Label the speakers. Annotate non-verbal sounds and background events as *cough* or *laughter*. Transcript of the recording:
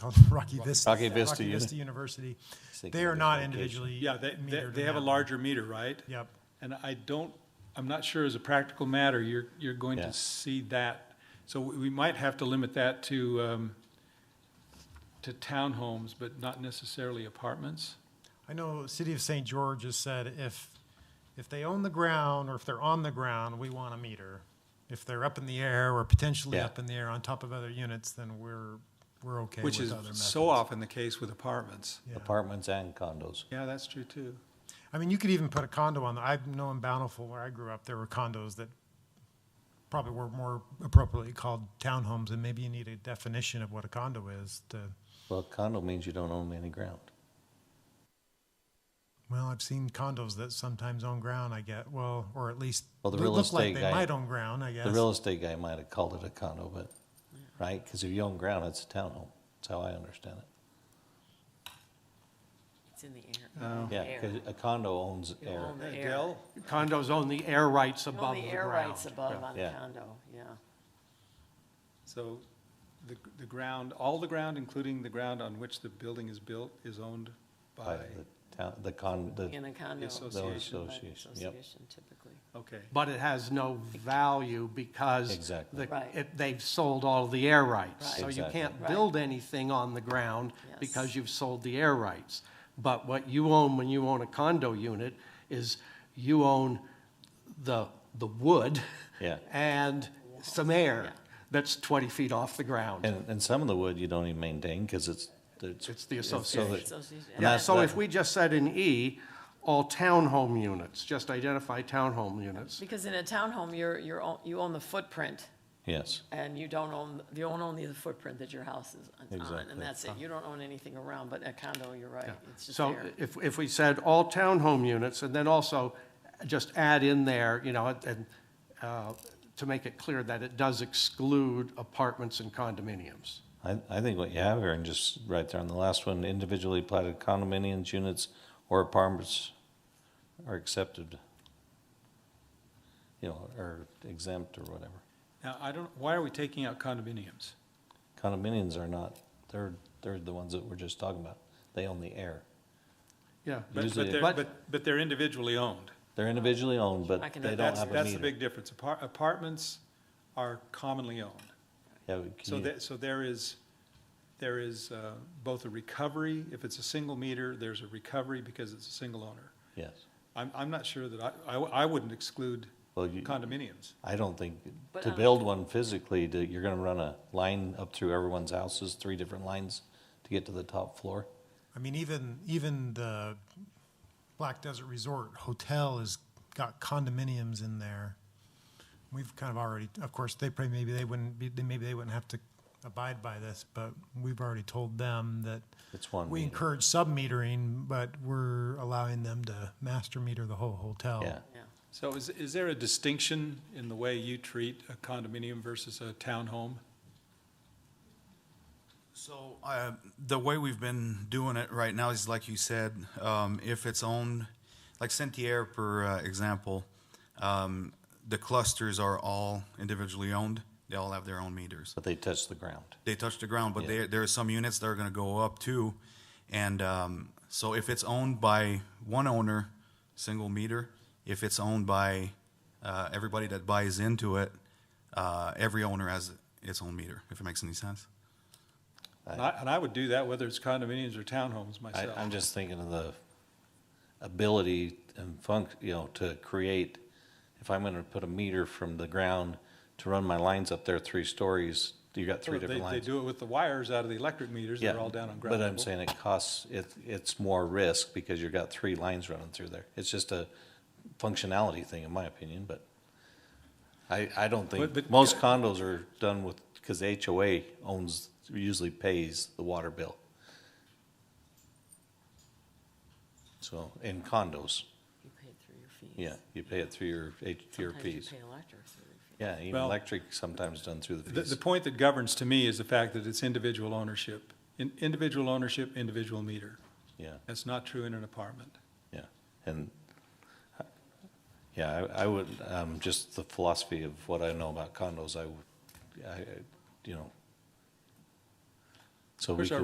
Speaker 1: called *laughs* Rocky Vista.
Speaker 2: Rocky Vista Uni-
Speaker 1: University.
Speaker 2: Thinking
Speaker 1: They are
Speaker 2: of
Speaker 1: not
Speaker 2: location.
Speaker 1: individually.
Speaker 3: Yeah, they, they,
Speaker 1: metered
Speaker 3: they
Speaker 1: in
Speaker 3: have a
Speaker 1: that.
Speaker 3: larger meter, right?
Speaker 1: Yep.
Speaker 3: And I don't, I'm not sure as a practical matter, you're, you're going
Speaker 2: Yeah.
Speaker 3: to see that. So we we might have to limit that to, um, to townhomes, but not necessarily apartments.
Speaker 1: I know City of St. George has said if, if they own the ground or if they're on the ground, we want a meter. If they're up in the air or potentially
Speaker 2: Yeah.
Speaker 1: up in the air on top of other units, then we're, we're okay with
Speaker 3: Which is
Speaker 1: other methods.
Speaker 3: so often the case with apartments.
Speaker 1: Yeah.
Speaker 2: Apartments and condos.
Speaker 3: Yeah, that's true too.
Speaker 1: I mean, you could even put a condo on, the- I know in Bountiful where I grew up, there were condos that probably were more appropriately called townhomes and maybe you need a definition of what a condo is to,
Speaker 2: Well, condo means you don't own any ground.
Speaker 1: well, I've seen condos that sometimes own ground, I get, well, or at least
Speaker 2: Well, the
Speaker 1: look
Speaker 2: real
Speaker 1: look like
Speaker 2: estate
Speaker 1: they
Speaker 2: guy-
Speaker 1: might own ground, I guess.
Speaker 2: The real estate guy might have called it a condo, but, right? Because if you own ground, it's a townhome. That's how I understand it.
Speaker 4: It's in the
Speaker 5: Oh.
Speaker 4: air.
Speaker 2: Yeah, because a condo owns air.
Speaker 4: On the
Speaker 3: Hey,
Speaker 4: air.
Speaker 3: Dell,
Speaker 5: Condos own the air rights above
Speaker 4: On
Speaker 5: the
Speaker 4: the
Speaker 5: ground.
Speaker 4: air rights above uh, on the
Speaker 2: Yeah.
Speaker 4: condo, yeah.
Speaker 3: So the, the ground, all the ground, including the ground on which the building is built, is owned
Speaker 2: by
Speaker 3: by,
Speaker 2: the town, the con, the,
Speaker 4: In a condo.
Speaker 3: association.
Speaker 4: by
Speaker 2: Association, yep.
Speaker 4: association typically.
Speaker 3: okay.
Speaker 5: But it has no value because.
Speaker 2: Exactly.
Speaker 5: the-
Speaker 4: Right.
Speaker 5: it- They've sold all the air rights.
Speaker 4: Right.
Speaker 5: So you
Speaker 2: Exactly.
Speaker 5: can't
Speaker 4: Right.
Speaker 5: build anything on the ground
Speaker 4: Yes.
Speaker 5: because you've sold the air rights. But what you own when you own a condo unit is you own the, the wood.
Speaker 2: Yeah.
Speaker 5: And some air that's 20 feet off the ground.
Speaker 2: and, and some of the wood you don't even maintain because it's, it's.
Speaker 5: It's the
Speaker 2: so
Speaker 5: association.
Speaker 2: that-
Speaker 4: Association.
Speaker 2: and
Speaker 5: Yeah,
Speaker 2: that's-
Speaker 5: so
Speaker 2: that-
Speaker 5: if we just said in E, all townhome units, just identify townhome units.
Speaker 4: Because in a townhome, you're, you're, own- you own the footprint,
Speaker 2: Yes,
Speaker 4: and you don't own, you own only the footprint that your house is on,
Speaker 2: Exactly.
Speaker 4: and that's it. You don't own anything around, but a condo, you're right, it's just
Speaker 5: So uh,
Speaker 4: air.
Speaker 5: if, if we said all townhome units, and then also just add in there, you know, and, uh, to make it clear that it does exclude apartments and condominiums.
Speaker 2: I, I think what you have here, and just right there on the last one, individually platted condominiums, units, or apartments are accepted. You know, or exempt or whatever.
Speaker 3: Now, I don't, why are we taking out condominiums?
Speaker 2: Condominiums are not, they're, they're the ones that we're just talking about. They own the air.
Speaker 5: Yeah,
Speaker 3: But, but
Speaker 2: Usually-
Speaker 3: they're,
Speaker 5: But-
Speaker 3: but, but they're individually owned.
Speaker 2: They're individually owned, but
Speaker 4: I can-
Speaker 2: they don't
Speaker 3: That's,
Speaker 2: have a
Speaker 3: that's the
Speaker 2: meter.
Speaker 3: big difference. Apar- Apartments are commonly owned.
Speaker 2: Yeah, but can
Speaker 3: So
Speaker 2: you-
Speaker 3: that, so there is, there is uh, both a recovery, if it's a single meter, there's a recovery because it's a single owner.
Speaker 2: Yes.
Speaker 3: I'm, I'm not sure that I, I, I wouldn't exclude
Speaker 2: Well, you-
Speaker 3: condominiums.
Speaker 2: I don't think,
Speaker 4: But um,
Speaker 2: to
Speaker 4: I-
Speaker 2: build one physically, that you're gonna run a line up through everyone's houses, three different lines to get to the top floor.
Speaker 1: I mean, even even the Black Desert Resort Hotel has got condominiums in there. We've kind of already, of course, they probably maybe they wouldn't be, they- maybe they wouldn't have to abide by this, but we've already told them that
Speaker 2: It's one
Speaker 1: we
Speaker 2: meter.
Speaker 1: encourage sub metering, but we're allowing them to master meter the whole
Speaker 3: Oh.
Speaker 1: hotel.
Speaker 2: Yeah,
Speaker 4: Yeah.
Speaker 3: So is, is there a distinction in the way you treat a condominium versus a townhome?
Speaker 6: So, uh, the way we've been doing it right now is like you said, um, if it's owned, like Sentier, for uh, example, um, the clusters are all individually owned. They all have their own meters.
Speaker 2: but they touch the ground.
Speaker 6: They touch the ground, but
Speaker 2: Yeah.
Speaker 6: there, there are some units that are going to go up too. And um, so, if it's owned by one owner, single meter, if it's owned by uh, everybody that buys into it, uh, every owner has its own meter, if it makes any sense.
Speaker 3: And I, and I would do that whether it's condominiums or townhomes
Speaker 2: I,
Speaker 3: myself.
Speaker 2: I'm just thinking of the ability and funk, you know, to create, if I'm gonna put a meter from the ground to run my lines up there three stories, you got three
Speaker 3: They-
Speaker 2: different lines.
Speaker 3: They do it with the wires out of the electric meters,
Speaker 2: Yeah,
Speaker 3: they're all down on ground
Speaker 2: But I'm
Speaker 3: level.
Speaker 2: saying it costs, it, it's more risk because you've got three lines running through there. It's just a functionality thing, in my opinion, but I, I don't
Speaker 3: But- but-
Speaker 2: think, most condos are done with, because the HOA owns, usually pays the water bill. So, in condos,
Speaker 4: You pay it through your fees.
Speaker 2: yeah, you pay it through your, H- your
Speaker 4: Sometimes you
Speaker 2: fees.
Speaker 4: pay electric through your fees.
Speaker 2: Yeah, even
Speaker 3: Well-
Speaker 2: electric sometimes done through the
Speaker 3: The, the
Speaker 2: fees.
Speaker 3: point that governs to me is the fact that it's individual ownership. In, individual ownership, individual meter.
Speaker 2: Yeah,
Speaker 3: That's not true in an apartment.
Speaker 2: yeah. And, Yeah, I, I would, um, just the philosophy of what I know about condos, I, would- I, I- you know. So we
Speaker 3: Where's our
Speaker 2: could